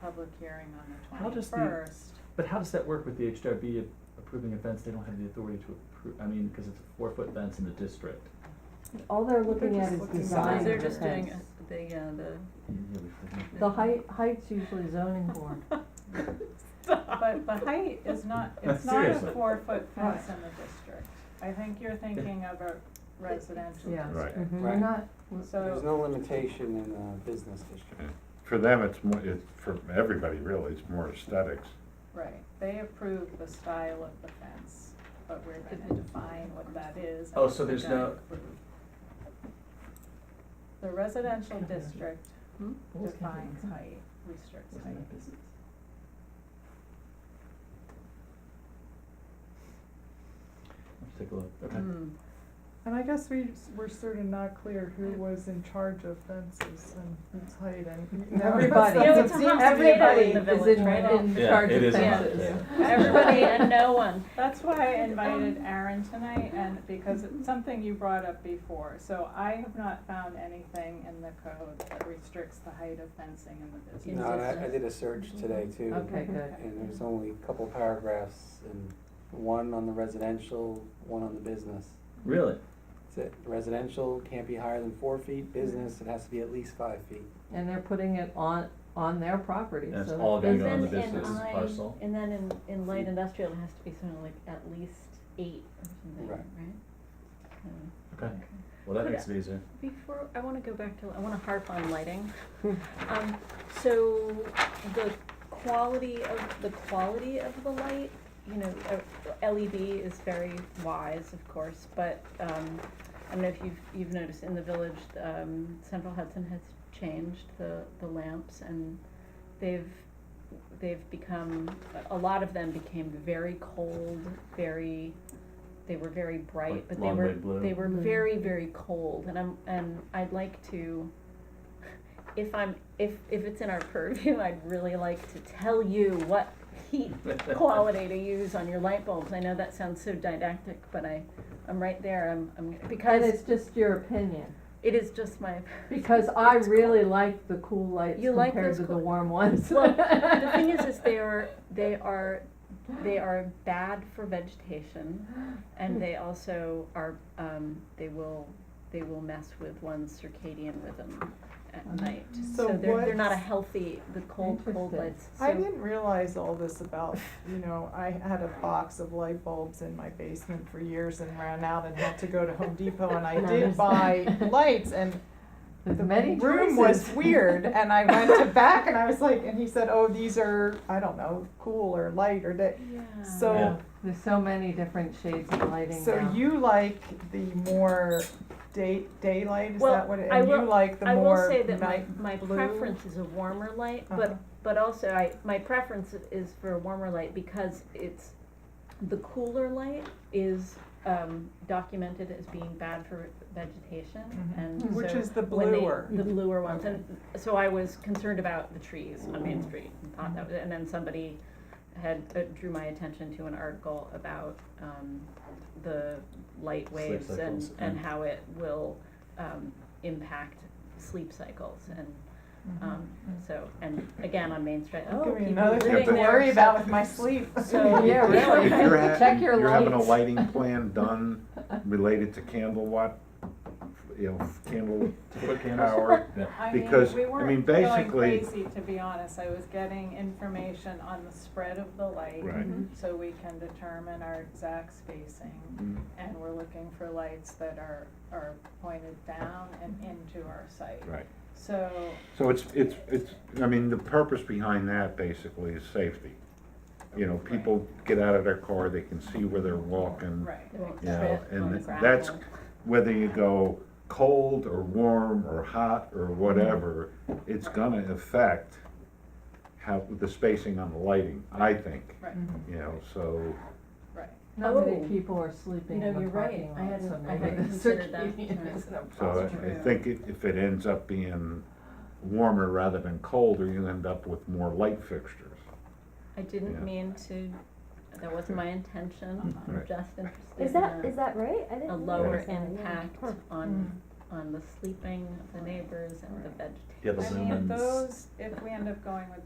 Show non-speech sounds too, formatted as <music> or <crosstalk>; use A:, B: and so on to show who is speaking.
A: public hearing on the
B: How does the-
A: twenty-first.
B: But how does that work with the HDRB approving a fence? They don't have the authority to approve, I mean, because it's a four-foot fence in the district.
C: All they're looking
D: They're
C: at
D: just
C: is
D: looking-
C: design
D: They're
C: of the
D: just doing
C: fence.
D: The, yeah, the,
C: The height, height's usually zoning
D: <laughs>
C: board.
A: <laughs> But the height is not, it's not a
B: Uh, Seriously.
A: four-foot fence in the district. I think you're thinking of a residential
C: Yeah.
E: Right.
A: district.
C: We're
D: Mm-hmm.
F: Right.
C: not,
A: So
F: There's no limitation in a business district.
E: For them, it's more, it's, for everybody really, it's more aesthetics.
A: Right, they approve the style of the fence, but we're gonna define what that is.
B: Oh,
A: and
B: so there's
A: we're gonna
B: no-
A: approve. The residential district
C: Hmm?
A: defines height, restricts height.
B: Let's take a look, okay.
A: Hmm.
D: mm,
G: And I guess we s- were sort of not clear who
D: Mm.
G: was in charge of fences and height
D: Mm-hmm.
C: <laughs>
G: and.
C: Everybody. You
G: That's-
C: know,
G: that's-
C: it's a
G: seems
D: hot
G: to be
D: potato
G: like-
C: everybody
D: in the
C: is
D: village,
C: in,
D: right?
C: in
B: Yeah,
C: charge
B: it
C: of
B: is a hot
C: fences.
B: potato.
D: everybody and no one.
A: <laughs> That's why I invited Aaron tonight and because it's something you brought up before. So I have not found anything in the code that restricts the height of fencing in the business.
F: No, and I, I did a search today too.
C: Mm-hmm. Okay, good.
F: And there's only a couple paragraphs and one on the residential, one on the business.
B: Really?
F: That's it. Residential can't be higher than four feet, business, it has to be at least five feet.
C: And they're putting it on, on their property,
B: And it's
C: so
B: all
C: that
B: going
D: And
B: on
D: then
B: the
C: business,
D: in
B: business
D: I,
B: parcel.
D: and then in, in light industrial, it has to be something like at least eight or something,
F: Right.
D: right? Um,
B: Okay, well, that
D: Could
B: makes it <laughs> easier.
D: Before, I wanna go back to, I wanna harp on
C: <laughs>
D: lighting. Um, so the quality of, the quality of the light, you know, uh, LED is very wise, of course, but, um, I don't know if you've, you've noticed in the village, um, Central Hudson has changed the, the lamps and they've, they've become, a lot of them became very cold, very, they were very bright,
B: Like
D: but they
B: long
D: were,
B: red blue.
D: they were
C: Mm.
D: very, very cold and I'm, and I'd like to, if I'm, if, if it's in our purview, I'd really like to tell you what heat quality to use on your light bulbs. I know that sounds so didactic, but I, I'm right there, I'm, I'm,
C: and
D: because
C: it's just your opinion.
D: it is just
G: <laughs>
D: my,
C: Because I
D: It's
C: really like the cool lights
D: You like
C: compared
D: those
C: to the
D: cool-
C: warm ones. <laughs>
D: <laughs> Well, the thing is, is they are, they are, they are bad for vegetation, and they also are, um, they will, they will mess with one's circadian rhythm at night.
G: Mm-hmm. So
D: they're, they're not a
G: what's-
D: healthy, the cold, cold
C: Interesting.
D: lights,
G: I
D: so,
G: didn't realize all this about, you know, I had a box of light bulbs in my basement for years and ran out and had to go to Home Depot and I did
C: Nice.
G: buy lights and
C: There's
G: the
C: many
G: room
C: choices. <laughs>
G: was weird and I went to back and I was like, and he said, oh, these are, I don't know, cool or light or that.
D: yeah.
G: So
B: Yeah.
C: There's so many different shades of lighting
G: So
C: now.
G: you like the more day daylight? Is
D: Well,
G: that what it?
D: I
G: and
D: will-
G: you like the
D: I
G: more
D: will say that my,
G: night
D: my
G: blue?
D: preference is a warmer light,
G: Uh-huh.
D: but, but also I, my preference is for a warmer light because it's, the cooler light is, um, documented as being bad for vegetation
B: Mm-hmm.
G: Mhm.
D: and so.
G: which is the
D: when they-
G: bluer.
D: The bluer ones,
G: Okay.
D: and so I was concerned about the trees on Main
B: Mm-hmm.
D: Street and thought that was, and then somebody had, uh, drew my attention to an article about, um, the light
B: Sleep
D: waves and,
B: cycles,
D: and
B: yeah.
D: how it will, um, impact sleep cycles and, um, so, and again, on Main Street, oh,
G: Mm-hmm. Give me
D: people
G: another
D: living
G: thing to
D: there,
G: worry
D: so-
G: about with my sleep.
A: <laughs>
D: So-
G: <laughs>
C: Yeah, really.
E: If <laughs> you're ha-
C: Check your
E: You're having a
C: lights.
E: lighting plan done related to candle watt, you know, candle
B: To put candles-
E: power.
B: Yeah.
A: I mean,
E: Because,
A: we
E: <laughs> I
A: weren't
E: mean,
A: Going
E: basically-
A: crazy, to be honest, I was getting information on the spread of the light.
E: Right.
G: Mm-hmm.
A: So we can determine our exact spacing,
E: Mm.
A: and we're looking for lights that are, are pointed down and into our site.
E: Right.
A: So,
E: So it's, it's, it's, I mean, the purpose behind that basically is safety. You know, people get out of their car, they can see where they're walking.
A: right,
D: They won't
E: Yeah,
D: trip
E: and
D: on
E: th-
D: gravel.
E: that's- Whether you go cold or warm or hot or whatever, it's gonna affect how, the spacing on the lighting, I think,
A: right,
E: you know, so.
A: right.
C: Not many
D: Oh.
C: people are sleeping
D: You know,
C: in the
D: you're right.
C: parking
D: I
C: lot, so
D: hadn't- I
C: maybe the
D: hadn't considered that.
C: circadian <laughs> is an
E: So
C: impossible.
E: I- I think it- if it ends up being warmer rather than colder, you end up with more light fixtures.
D: I
E: Yeah. Mm,
D: didn't mean to, that wasn't my
G: mm-hmm.
D: intention, I'm
A: Uh-huh.
E: Right.
D: just interested in a.
H: Is that, is that right? I didn't
D: A
H: realize
D: lower
H: that, yeah.
D: impact
H: Huh.
D: on, on the sleeping of the neighbors and the vegetation.
B: Yeah, the
A: I
B: lumens.
A: mean, those, if we end up going with